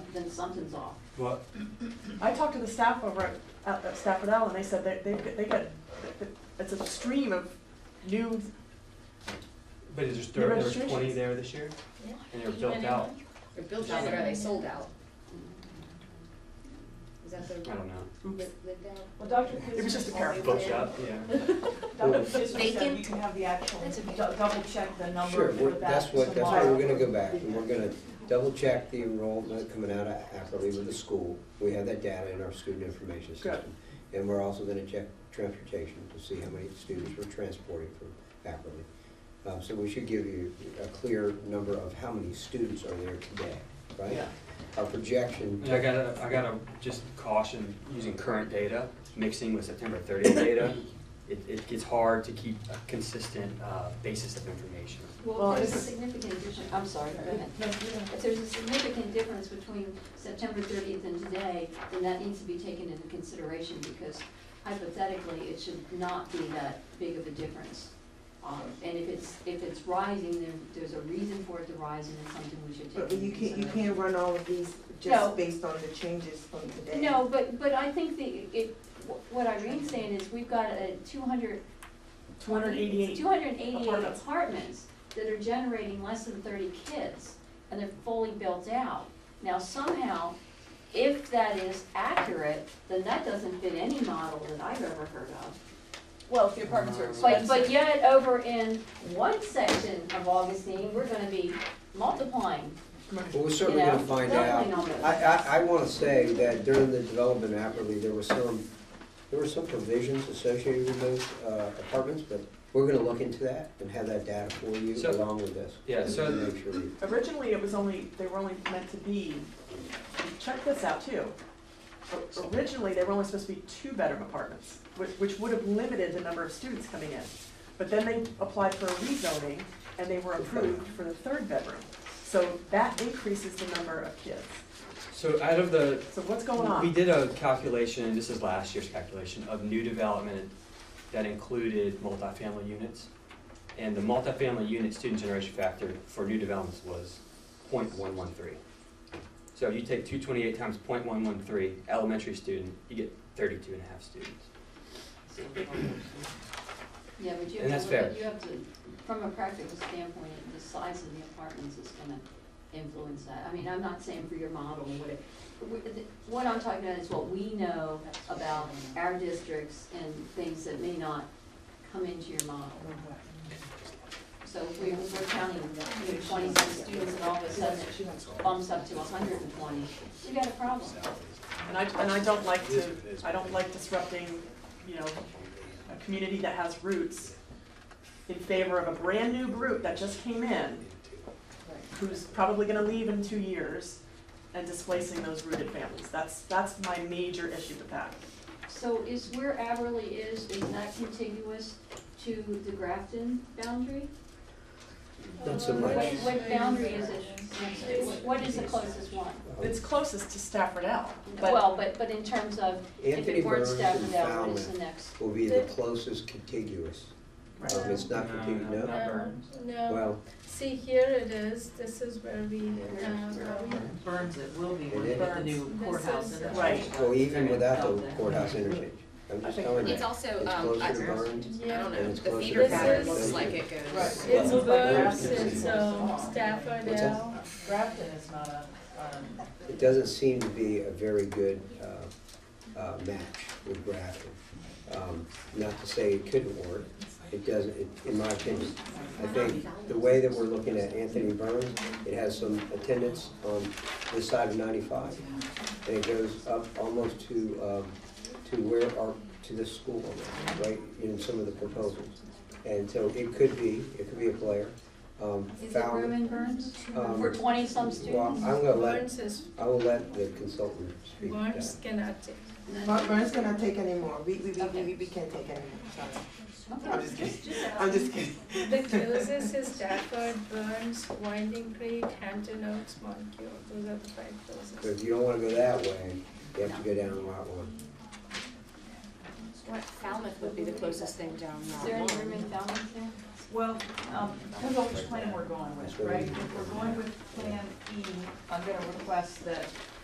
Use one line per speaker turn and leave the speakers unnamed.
then something's off.
Well,
I talked to the staff over at- at at Stafford L, and they said that they, they get, it's a stream of new,
but is there,
The
still- there was twenty
registrations.
there this year?
Yeah.
And they were built out,
They're built out, but are they sold out? Is that the?
I don't know.
Lived lived out?
Well, Dr.
It was just a
Kizner
pair of
always
Booked
said-
up, yeah.
Dr. Kizner said you
Vacant.
can have the actual,
That's a
dou-
vacant.
double check the number
Sure,
for
we're-
that
that's what, that's
tomorrow.
where we're gonna go back, and we're gonna double check the enrollment coming out of Ackley with the school. We have that data in our student information system. And we're also gonna check transportation to see how many students we're transporting from Ackley. Um, so we should give you a clear number of how many students are there today, right?
Yeah.
Our projection,
And I gotta, I gotta just caution using current data, mixing with September thirtieth data. It, it gets hard to keep a consistent, uh, basis of information.
Well,
Well, if there's a
it's-
significant addition, I'm sorry, go ahead.
No, you know.
If there's a significant difference between September thirtieth and today, then that needs to be taken into consideration because hypothetically, it should not be that big of a difference. Um, and if it's, if it's rising, then there's a reason for it to rise and it's something we should take
But
into
you can't, you
consideration.
can't run all of these
No.
just based on the changes from today.
No, but, but I think the, it, wh- what Irene's saying is we've got a two hundred
288.
288
apartments.
apartments that are generating less than thirty kids, and they're fully built out. Now somehow, if that is accurate, then that doesn't fit any model that I've ever heard of.
Well, if the apartments are
But,
expensive.
but yet, over in one section of Augustine, we're gonna be multiplying,
well,
you
we're certainly
know,
gonna find out.
doubling almost.
I, I, I wanna say that during the development of Apperly, there were some, there were some provisions associated with those uh, apartments, but we're gonna look into that and have that data for you
So-
along with this.
Yeah, so-
To Make sure we-
Originally, it was only, they were only meant to be, check this out too. O- Originally, they were only supposed to be two-bedroom apartments, which, which would have limited the number of students coming in. But then they applied for a rezoning, and they were approved for the third bedroom. So that increases the number of kids.
So out of the,
So what's going on?
We did a calculation, this is last year's calculation, of new development that included multifamily units. And the multifamily unit student generation factor for new developments was 0.113. So you take two twenty-eight times 0.113 elementary student, you get 32 and a half students.
Yeah, but you
And
have
that's
to look
fair.
at, you have to, from a practical standpoint, the size of the apartments is gonna influence that. I mean, I'm not saying for your model, what it, w- th- what I'm talking about is what we know about our districts and things that may not come into your model. So if we we're counting you know, twenty-six students and all of a sudden it bumps up to hundred and twenty, you got a problem.
And I, and I don't like to, I don't like disrupting, you know, a community that has roots in favor of a brand-new group that just came in, who's probably gonna leave in two years, and displacing those rooted families. That's, that's my major issue with that.
So is where Aberley is, is that contiguous to the Grafton boundary?
Not so
What,
much.
what boundary is it? What- What is the closest one?
It's closest to Stafford L, but
Well, but, but in terms of, if
Anthony
it weren't
Burns and
Stafford L, what is
Falmouth
the next?
will be the closest contiguous.
Right.
Um, It's not contiguous,
No,
no?
not Burns.
Um, No,
Well,
see, here it is, this is where we, uh,
Burns it will be
It
when we put the
is.
new courthouse in.
Right.
well, even without the courthouse interchange, I'm just
I think-
telling you.
It's also,
It's
um,
closer to Burns.
yeah.
I don't
And
know,
it's
the
closer
feeder
to
pattern
Burns.
looks like it goes.
Right.
It's
Well,
Burns,
Grafton
it's
is-
um, Stafford
What's that?
L.
Grafton is not a, um,
It doesn't seem to be a very good uh, uh, match with Grafton. Um, Not to say it couldn't work, it doesn't, it- in my opinion. I think the way that we're looking at Anthony Burns, it has some attendance on this side of 95, and it goes up almost to, um, to where our, to the school, right, in some of the proposals. And so it could be, it could be a player. Um,
Is it
Fallon-
room in Burns?
um,
For twenty-some
Well,
students?
I'm gonna let
Burns is,
I will let the consultant speak. to that.
Burns cannot take.
Mar- Mar's gonna take anymore, we, we, we,
Okay.
we, we can't take anymore, sorry.
Okay.
I'm just kidding, I'm just kidding.
The closest is Stafford, Burns, Winding Creek, Hampton Oaks, Monqueal, those are the five
So
closest.
if you don't wanna go that way, you have to go down Route One.
What, Falmouth would be the closest thing down
Is there
there.
any room in Falmouth there?
well, um, depends on which plan we're going with, right? If we're going with Plan E, I'm gonna request that